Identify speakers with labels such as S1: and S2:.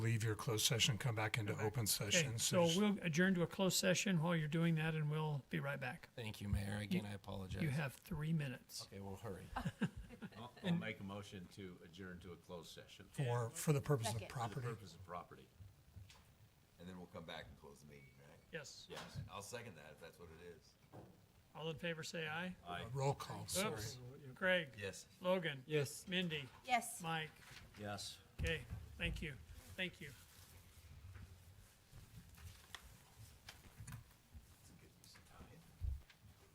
S1: leave your closed session, come back into open
S2: Okay,
S1: session.
S2: so
S1: just-
S2: we'll adjourn to a closed session while you're doing that, and we'll be right back.
S3: Thank you, Mayor. Again, I apologize.
S2: You have three minutes.
S3: Okay, we'll hurry.
S4: I'll- I'll make a motion to adjourn to a closed session
S1: For,
S4: for
S1: for the purpose of
S5: Second.
S4: the
S1: property.
S4: purpose of property.
S6: And then we'll come back and close the meeting, right?
S2: Yes.
S4: Yes.
S6: I'll second that if that's what it is.
S2: All in favor, say aye.
S4: Aye.
S1: Roll call, sorry.
S2: Oops. Craig.
S6: Yes.
S2: Logan.
S3: Yes.
S2: Mindy.
S5: Yes.
S2: Mike.
S4: Yes.
S2: Okay, thank you. Thank you.